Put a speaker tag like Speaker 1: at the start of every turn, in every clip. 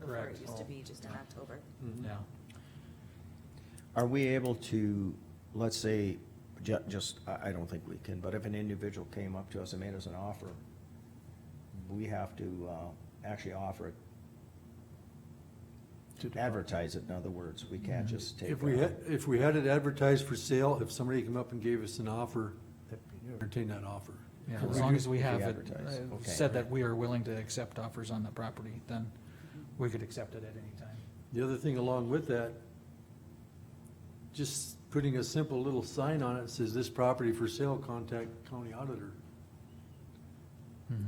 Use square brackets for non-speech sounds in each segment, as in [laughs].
Speaker 1: before it
Speaker 2: Correct.
Speaker 1: used to be just in October.
Speaker 2: Yeah.
Speaker 3: Are we able to, let's say, ju- just, I, I don't think we can, but if an individual came up to us and made us an offer, we have to, uh, actually offer it,
Speaker 4: To do-
Speaker 3: advertise it, in other words, we can't just take.
Speaker 2: If we,
Speaker 3: uh,
Speaker 2: had if we had it advertised for sale, if somebody came up and gave us an offer,
Speaker 4: that'd be new.
Speaker 2: entertain that offer.
Speaker 5: Yeah,
Speaker 3: If
Speaker 5: as
Speaker 3: we
Speaker 5: long
Speaker 3: do-
Speaker 5: as we
Speaker 3: if we
Speaker 5: have it,
Speaker 3: advertise,
Speaker 5: uh,
Speaker 3: okay.
Speaker 5: said that we are willing to accept offers on the property, then we could accept it at any time.
Speaker 2: The other thing along with that, just putting a simple little sign on it that says this property for sale, contact county auditor.
Speaker 3: Mm-hmm.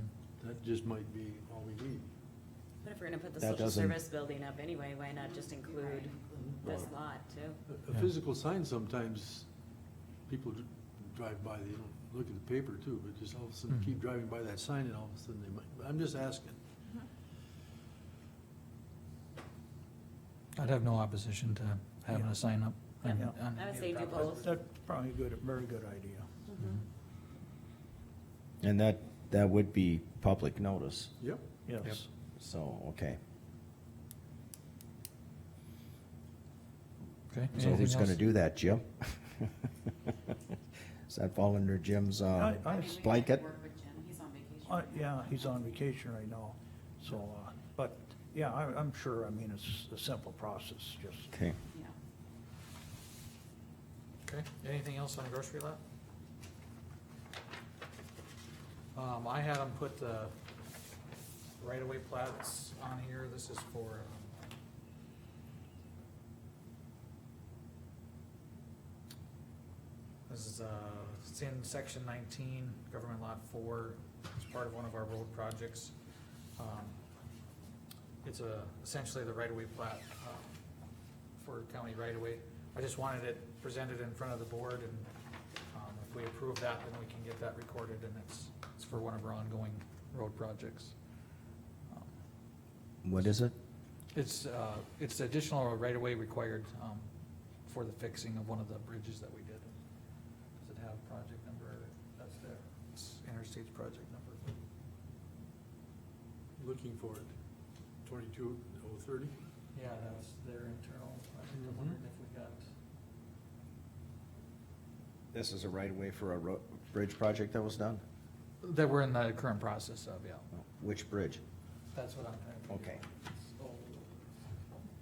Speaker 2: That just might be all we need.
Speaker 1: But if we're gonna put the
Speaker 3: That
Speaker 1: social
Speaker 3: doesn't-
Speaker 1: service building up anyway, why not just include this
Speaker 2: Right.
Speaker 1: lot too?
Speaker 2: A- A
Speaker 5: Yeah.
Speaker 2: physical sign sometimes, people dr- drive by, they don't look at the paper too, but just all of a sudden
Speaker 5: Mhm.
Speaker 2: keep driving by that sign and all of a sudden they might, I'm just asking.
Speaker 5: I'd have no opposition to having a sign up. on-
Speaker 4: Yeah.
Speaker 5: on
Speaker 1: I would
Speaker 5: either
Speaker 1: say do
Speaker 5: property.
Speaker 1: both. Mm-hmm.
Speaker 4: That's probably a good, a very good idea.
Speaker 3: And that, that would be public notice,
Speaker 2: Yep.
Speaker 4: Yes.
Speaker 3: so, okay.
Speaker 5: Okay.
Speaker 3: So
Speaker 5: anything
Speaker 3: who's gonna
Speaker 5: else?
Speaker 3: do that, Jim? [laughs] Does that fall under Jim's, uh,
Speaker 4: I- I-
Speaker 3: blanket?
Speaker 6: Work with Jim, he's on vacation.
Speaker 4: Uh, yeah, he's on vacation right now, so, uh, but, yeah, I, I'm sure, I mean, it's a simple process, just
Speaker 3: Okay,
Speaker 6: Yeah.
Speaker 5: Okay, anything else on grocery lot? Um, I had them put the right-of-way plats on here, this is for, um, this is, uh, it's in section nineteen, government lot four, it's part of one of our road projects. Um, It's a, essentially the right-of-way plat, um, for county right-of-way. I just wanted it presented in front of the board, and um, if we approve that, then we can get that recorded, and it's, it's for one of our ongoing road projects. Um,
Speaker 3: what is it?
Speaker 5: It's, uh, it's additional right-of-way required um, for the fixing of one of the bridges that we did. Does it have project number? That's there. It's interstate's project number.
Speaker 2: Looking for it, twenty-two oh thirty.
Speaker 5: Yeah, that was their internal, I think, I wondered if we got,
Speaker 3: This is a right-of-way for a ro- bridge project that was done?
Speaker 5: that we're in the current process of, yeah.
Speaker 3: Which bridge?
Speaker 5: That's what I'm trying to.
Speaker 3: Okay.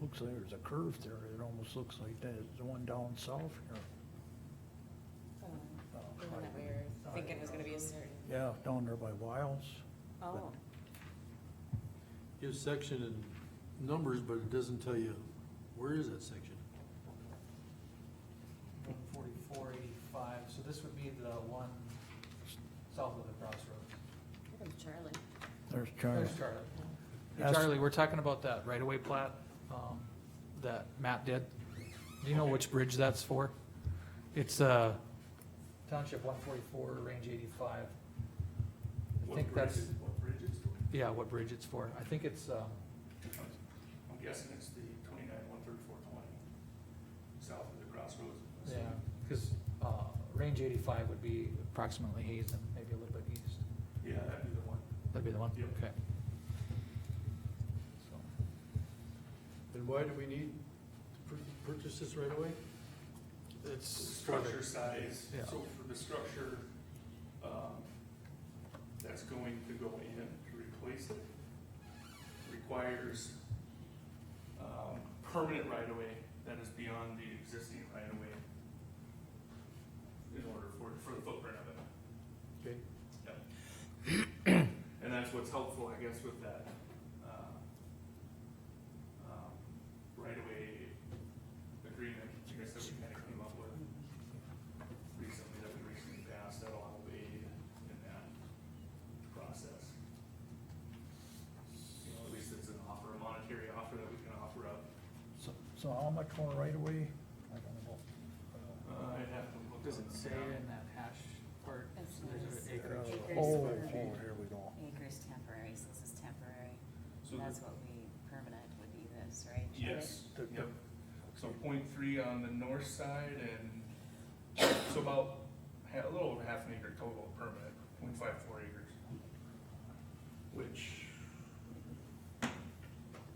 Speaker 4: looks like there's a curve there, it almost looks like that, the one down south here.
Speaker 1: The one that we were thinking was gonna be a certain,
Speaker 4: Oh, Yeah, down there by Wiles.
Speaker 1: oh,
Speaker 2: Gives section and numbers, but it doesn't tell you, where is that section?
Speaker 5: One forty-four eighty-five, so this would be the one south of the crossroads.
Speaker 1: look at Charlie.
Speaker 4: There's Charlie.
Speaker 5: There's Charlie. Hey,
Speaker 4: That's-
Speaker 5: Charlie, we're talking about that right-of-way plat, um, that Matt did. Do you know which bridge that's for? It's, uh, Township one forty-four, range eighty-five. I think that's,
Speaker 7: What bridge is doing?
Speaker 5: yeah, what bridge it's for. I think it's, um,
Speaker 7: I'm guessing it's the twenty-nine, one thirty-four, twenty, south of the crossroads.
Speaker 5: yeah, cause, uh, range eighty-five would be approximately Hazen, maybe a little bit east.
Speaker 7: Yeah, that'd be the one.
Speaker 5: That'd be the one?
Speaker 7: Yep.
Speaker 5: Okay. So,
Speaker 2: And why do we need to pur- purchase this right away?
Speaker 5: It's.
Speaker 7: Structure size,
Speaker 5: Yeah.
Speaker 7: so for the structure, um, that's going to go in to replace it, requires, um, permanent right-of-way that is beyond the existing right-of-way in order for, for the footprint of it.
Speaker 2: Okay.
Speaker 7: And that's what's helpful, I guess, with that, um, um, right-of-way agreement, I guess that we kind of came up with recently, that we recently passed, that'll all be in that process. You know, at least it's an offer, a monetary offer that we can offer up.
Speaker 4: So, so how much more right away? I don't know.
Speaker 7: Uh, I'd have to look.
Speaker 5: Does
Speaker 7: on
Speaker 5: it
Speaker 7: the
Speaker 5: say
Speaker 7: map.
Speaker 5: in that hash part,
Speaker 1: That's
Speaker 5: there's
Speaker 1: nice.
Speaker 5: an acreage?
Speaker 4: Oh, oh, here we go.
Speaker 1: Acres temporary, so this is temporary,
Speaker 7: So
Speaker 1: that's
Speaker 7: the-
Speaker 1: what we, permanent would be this, right? Charlie?
Speaker 7: Yes,
Speaker 4: The-
Speaker 7: yep. So point three on the north side and so about ha- a little over half an acre total permit, point five four acres. Which